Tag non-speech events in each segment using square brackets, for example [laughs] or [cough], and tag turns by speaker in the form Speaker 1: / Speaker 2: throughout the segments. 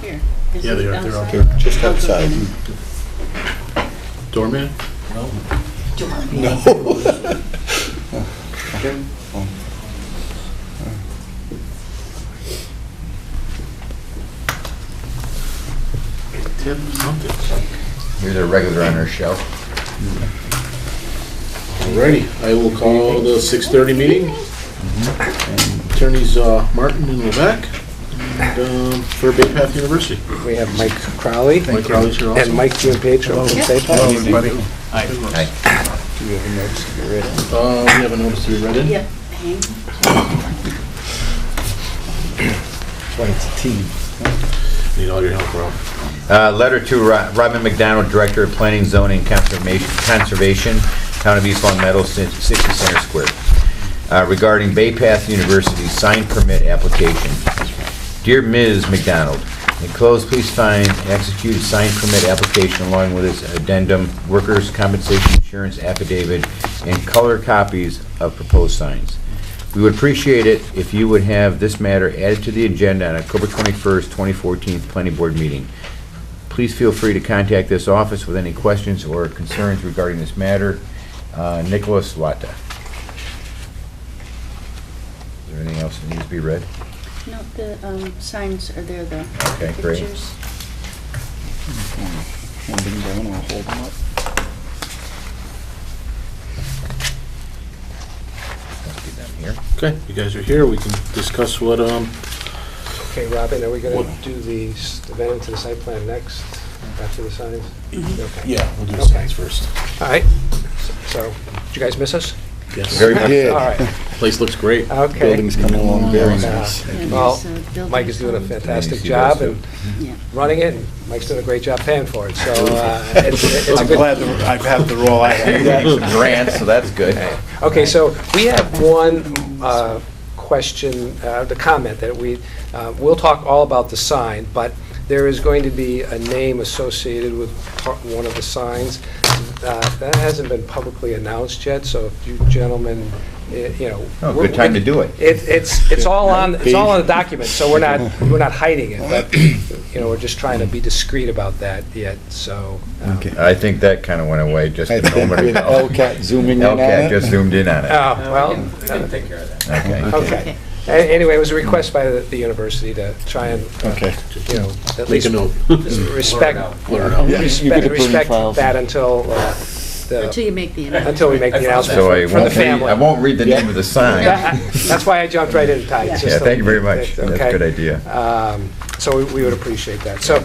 Speaker 1: Here. This
Speaker 2: Yeah, they
Speaker 1: is
Speaker 2: are. They're
Speaker 1: outside.
Speaker 2: okay.
Speaker 3: Just outside.
Speaker 2: Doorman? [laughs] Um. Tip something.
Speaker 4: Here's a regular on our show.
Speaker 2: Alrighty, I will call the six thirty meeting. Attorneys uh, Martin and Levesque, and, um, for Bay Path University.
Speaker 5: We have Mike Crowley
Speaker 2: Mike Crowley's here also.
Speaker 5: and Mike Giampacho from Safe Harbor.
Speaker 3: Do you have notes to get rid of?
Speaker 2: Uh, we have a notice to be read in.
Speaker 1: Yep, hang.
Speaker 3: That's why it's a team.
Speaker 2: Need all your help, Rob.
Speaker 4: Uh, Letter to Ro- Robin McDonald, Director of Planning, Zoning, and Conservation- Conservation, Town of East Long Meadow, Ci- 60 Center Square, Uh, regarding Bay Path University sign permit application. Dear Ms. McDonald, enclosed, please find and execute a sign permit application along with its addendum, workers' compensation insurance affidavit, and color copies of proposed signs. We would appreciate it if you would have this matter added to the agenda on October 21st, 2014 Planning Board meeting. Please feel free to contact this office with any questions or concerns regarding this matter. Uh, Nicholas Latta. Is there anything else that needs to be read?
Speaker 1: No, the um, signs are there, the
Speaker 4: Okay, great.
Speaker 1: pictures.
Speaker 3: Hand them down or hold them up.
Speaker 4: Must be them here.
Speaker 2: Okay, you guys are here, we can discuss what, um,
Speaker 5: Okay, Robin, are we going to
Speaker 2: What?
Speaker 5: do the s- amendment to the site plan next, after the signs?
Speaker 3: Mm-hmm.
Speaker 5: Okay.
Speaker 2: yeah, we'll do the
Speaker 5: Okay.
Speaker 2: signs first.
Speaker 5: All right, so, did you guys miss us?
Speaker 2: Yes,
Speaker 4: Very much.
Speaker 5: All right,
Speaker 2: place looks great.
Speaker 5: okay.
Speaker 3: Building's coming along very nice.
Speaker 1: Yeah,
Speaker 5: Well,
Speaker 1: there's, uh, building
Speaker 5: Mike is doing a
Speaker 1: signs.
Speaker 5: fantastic
Speaker 4: Nice, you guys
Speaker 5: job and
Speaker 1: Yeah.
Speaker 5: running it, and Mike's doing a great job paying for it,
Speaker 3: [laughs]
Speaker 5: so uh, it's it's a
Speaker 3: I'm
Speaker 5: good...
Speaker 3: glad that I've had [laughs] the role I had.
Speaker 4: Grants, so that's good.
Speaker 5: Okay, so we have one uh, question, uh, the comment that we, uh, we'll talk all about the sign, but there is going to be a name associated with part- one of the signs. Uh, That hasn't been publicly announced yet, so if you gentlemen, eh, you know.
Speaker 4: Oh, good time to do it.
Speaker 5: It- It's, it's all on, it's all on the document, so
Speaker 4: [laughs]
Speaker 5: we're not, we're not hiding it, but, you know, we're just trying to be discreet about that yet, so. um,
Speaker 3: Okay.
Speaker 4: I think that kind of went away just
Speaker 3: [laughs] I
Speaker 4: a
Speaker 3: think
Speaker 4: moment
Speaker 3: with
Speaker 4: ago.
Speaker 3: Elcat zooming in on
Speaker 4: Elcat just
Speaker 3: it.
Speaker 4: zoomed in on it.
Speaker 5: Oh, well.
Speaker 6: Take care of that.
Speaker 4: Okay.
Speaker 5: Okay. A- Anyway, it was a request by the the university to try and, uh,
Speaker 3: Okay.
Speaker 5: you know, at
Speaker 2: Make
Speaker 5: least
Speaker 2: a [laughs] note.
Speaker 5: respect,
Speaker 2: Blur it out.
Speaker 3: Yeah, you
Speaker 5: respect
Speaker 3: get a burning
Speaker 5: respect
Speaker 3: file.
Speaker 5: that until, uh, the
Speaker 1: Until you
Speaker 5: [laughs]
Speaker 1: make the announcement.
Speaker 5: until we make the announcement
Speaker 4: So I
Speaker 5: for- for the
Speaker 4: won't read, I
Speaker 5: family.
Speaker 4: won't read the name of the sign. Yeah,
Speaker 5: That's why I jumped right in, Ty. just to-
Speaker 4: thank you very much. That's a
Speaker 5: okay.
Speaker 4: good idea.
Speaker 5: Um, So we- we would appreciate that. So,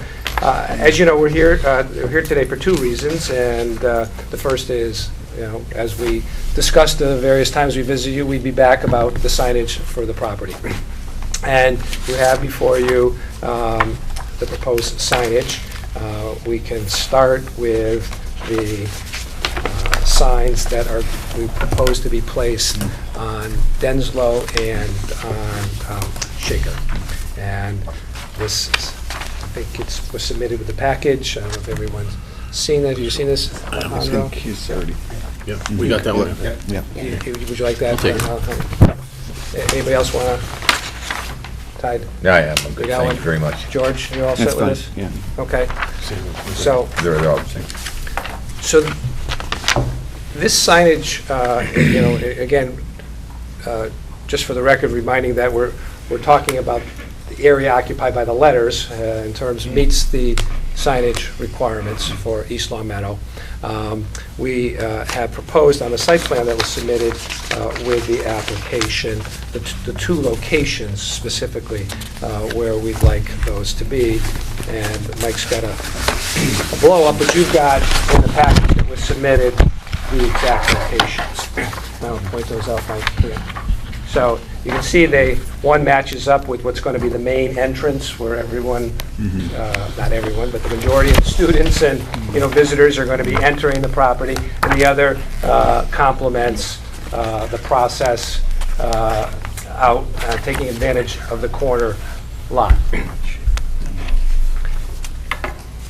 Speaker 5: uh, as you know, we're here, uh, we're here today for two reasons, and uh, the first is, you know, as we discussed the various times we visited you, we'd be back about the signage for the property. And you have before you um, the proposed signage. Uh, We can start with the uh, signs that are, we propose to be placed on Denslow and on um, Shaker. And this, is- I think it was submitted with the package. I don't know if everyone's seen that. Have you seen this?
Speaker 3: I
Speaker 5: Monroe?
Speaker 3: think he's already,
Speaker 2: Yep, we got that one.
Speaker 3: yeah.
Speaker 5: You- you- Would you like that?
Speaker 2: I'll take it.
Speaker 5: A- Anybody else want to? Tide,
Speaker 4: Yeah, yeah, I'm good.
Speaker 5: We got
Speaker 4: Thank
Speaker 5: one.
Speaker 4: you very much.
Speaker 5: George, you all
Speaker 3: That's
Speaker 5: set with
Speaker 3: fine,
Speaker 5: this?
Speaker 3: yeah.
Speaker 5: Okay, so,
Speaker 4: They're they're all the same.
Speaker 5: so th- this signage, uh, you know, a- again, uh, just for the record, reminding that we're, we're talking about the area occupied by the letters uh, in terms, meets the signage requirements for East Long Meadow. Um, We uh, have proposed on the site plan that was submitted uh, with the application, the t- the two locations specifically uh, where we'd like those to be. And Mike's got a blow-up, but you've got in the package that was submitted the exact locations. Now, point those out, Mike, here. So you can see they, one matches up with what's going to be the main entrance where everyone, uh, not everyone, but the majority of students and, you know, visitors are going to be entering the property. And the other uh, complements uh, the process uh, out, uh, taking advantage of the corner lot.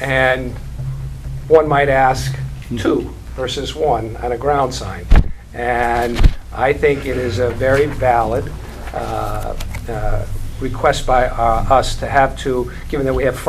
Speaker 5: And one might ask, two versus one on a ground sign. And I think it is a very valid uh, uh, request by uh, us to have to, given that we have